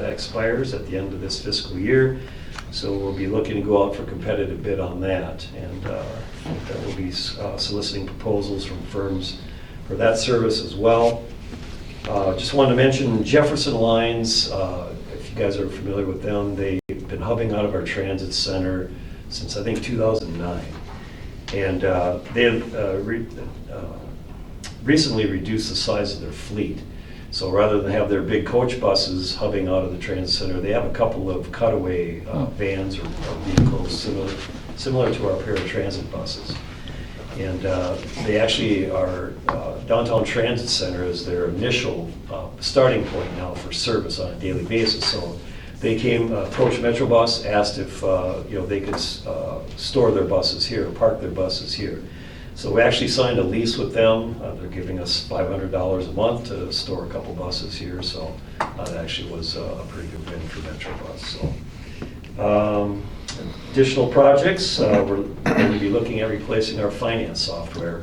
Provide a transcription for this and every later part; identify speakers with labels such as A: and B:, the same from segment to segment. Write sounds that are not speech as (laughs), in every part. A: that expires at the end of this fiscal year. So we'll be looking to go out for competitive bid on that, and uh, that will be uh, soliciting proposals from firms for that service as well. Uh, Just wanted to mention Jefferson Lines, uh, if you guys are familiar with them, they've been hubbing out of our transit center since, I think, 2009. And uh, they have uh, re- uh, recently reduced the size of their fleet. So rather than have their big coach buses hubbing out of the transit center, they have a couple of cutaway uh, vans or or vehicles similar similar to our paratransit buses. And uh, they actually are, uh, Downtown Transit Center is their initial uh, starting point now for service on a daily basis. So they came, uh, approached Metro Bus, asked if, uh, you know, they could uh, store their buses here, park their buses here. So we actually signed a lease with them. Uh, They're giving us $500 a month to store a couple buses here. So uh, that actually was uh, a pretty good win for Metro Bus, so. Um, Additional projects, uh, we're going to be looking at replacing our finance software.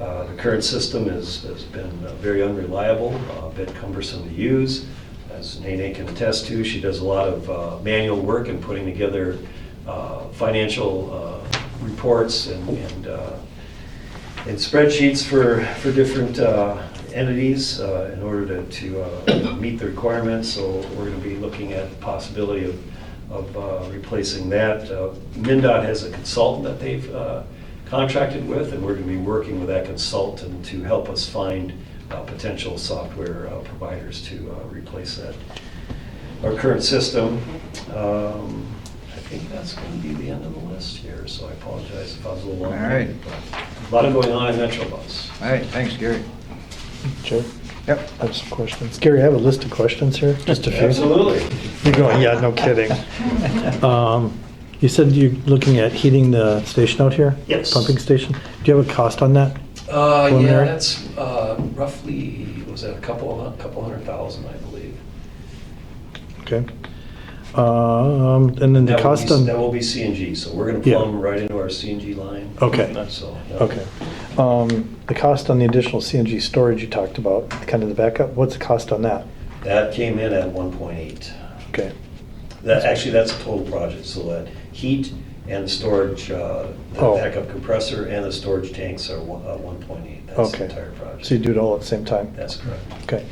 A: Uh, The current system is, has been uh, very unreliable, uh, a bit cumbersome to use. As Nene can attest to, she does a lot of uh, manual work in putting together uh, financial uh, reports and, and uh, and spreadsheets for, for different uh, entities uh, in order to, to uh, meet the requirements. So we're going to be looking at the possibility of, of uh, replacing that. Uh, MinDOT has a consultant that they've uh, contracted with, and we're going to be working with that consultant to help us find uh, potential software uh, providers to uh, replace that, our current system. Um, I think that's going to be the end of the list here, so I apologize if I was a little long.
B: All right.
A: A lot of going on in Metro Bus.
B: All right, thanks, Gary.
C: Sure.
B: Yep.
C: I have some questions. Gary, I have a list of questions here, just a few.
A: Absolutely.
C: You're going, yeah, no kidding. Um, You said you're looking at heating the station out here?
A: Yes.
C: Pumping station? Do you have a cost on that?
A: Uh, yeah,
C: Preliminary?
A: that's uh, roughly, was that a couple, a couple hundred thousand, I believe.
C: Okay. Um, And then the
A: That will
C: cost
A: be-
C: on...
A: That will be CNG, so we're gonna
C: Yeah.
A: plumb right into our CNG line.
C: Okay.
A: So. yeah.
C: Okay. Um, The cost on the additional CNG storage you talked about, kind of the backup, what's the cost on that?
A: That came in at one point eight.
C: Okay,
A: That, actually, that's a total project, so that heat and storage, uh, the
C: Oh.
A: backup compressor and the storage tanks are one point eight. That's the
C: okay.
A: entire project.
C: So you do it all at the same time?
A: That's correct.
C: Okay.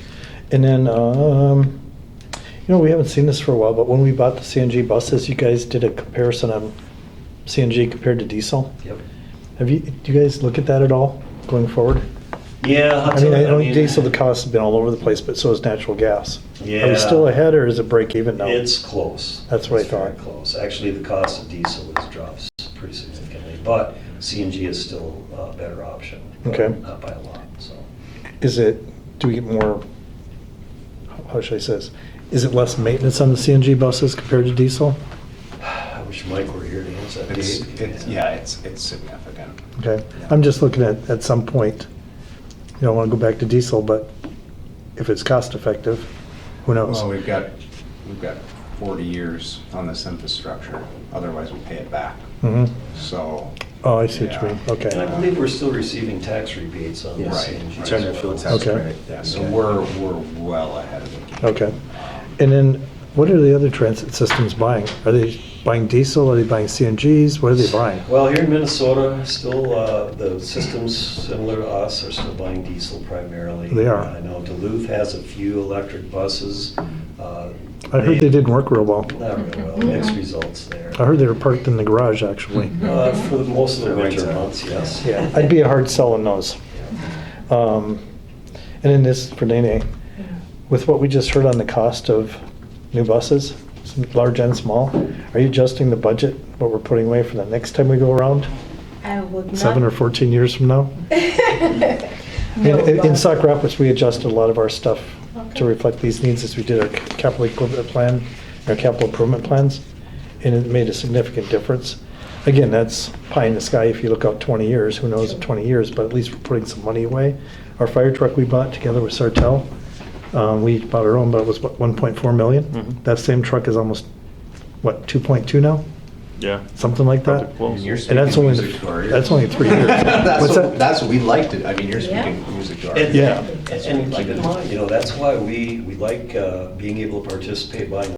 C: And then, um, you know, we haven't seen this for a while, but when we bought the CNG buses, you guys did a comparison on CNG compared to diesel.
A: Yep.
C: Have you, do you guys look at that at all going forward?
A: Yeah. I'll
C: I
A: tell
C: mean, I
A: you,
C: know diesel, the cost has been all over the place, but so has natural gas. Are
A: Yeah.
C: we still ahead or is it break even now?
A: It's close.
C: That's what I
A: It's very
C: thought.
A: Close. Actually, the cost of diesel has dropped pretty significantly, but CNG is still a better option. but
C: Okay.
A: Not by a lot, so.
C: Is it, do we get more, how should I say this? Is it less maintenance on the CNG buses compared to diesel?
A: I wish Mike were here to answer that.
D: It's,
A: Dave.
D: it's, yeah, it's, it's significant.
C: Okay, I'm just looking at, at some point, you don't want to go back to diesel, but if it's cost effective, who knows?
D: Well, we've got, we've got 40 years on this infrastructure, otherwise we pay it back.
C: Mhm.
D: So,
C: Oh, I see what you
D: Yeah.
C: mean,
A: And I
C: okay.
A: believe we're still receiving tax rebates on the
D: Yes.
A: CNG.
D: Right.
A: as
D: Turner
A: well.
D: Field
C: tax Okay. credit.
D: yeah, so we're, we're well ahead of the game.
C: Okay. And then, what are the other transit systems buying? Are they buying diesel, are they buying CNGs, what are they buying?
A: Well, here in Minnesota, still, uh, the systems similar to us are still buying diesel primarily.
C: They are.
A: I know Duluth has a few electric buses. Uh, I
C: I heard they didn't work real well.
A: Not really well, mixed results there.
C: I heard they were parked in the garage, actually.
A: Uh, For the- most of the
D: For
A: winter
D: winter.
A: months, yes.
C: Yeah, I'd be a hard sell on those. Um, And then this for Nene, with what we just heard on the cost of new buses, some large and small, are you adjusting the budget, what we're putting away for the next time we go around?
E: I would not.
C: Seven or
E: (laughs)
C: 14 years from now?
E: No,
C: In- In in
E: but-
C: Sauk Rapids, we adjusted a lot of our stuff
E: Okay.
C: to reflect these needs as we did our capital equipment plan, our capital improvement plans, and it made a significant difference. Again, that's pie in the sky if you look out 20 years, who knows in 20 years, but at least we're putting some money away. Our fire truck we bought together with Sartell, um, we bought our own, but it was what, 1.4 million?
B: Mhm.
C: That same truck is almost, what, 2.2 now?
B: Yeah.
C: something like that.
B: Probably close.
D: And you're
C: And that's
D: speaking
C: only,
D: music to our ears.
C: that's only three
D: (laughs)
C: years.
D: That's
C: What's
D: what,
C: that?
D: that's what we like to, I mean, you're
E: Yeah.
D: speaking music to our
A: And-
D: ears.
C: Yeah.
A: And keep in mind, you know, that's why we, we like uh, being able to participate by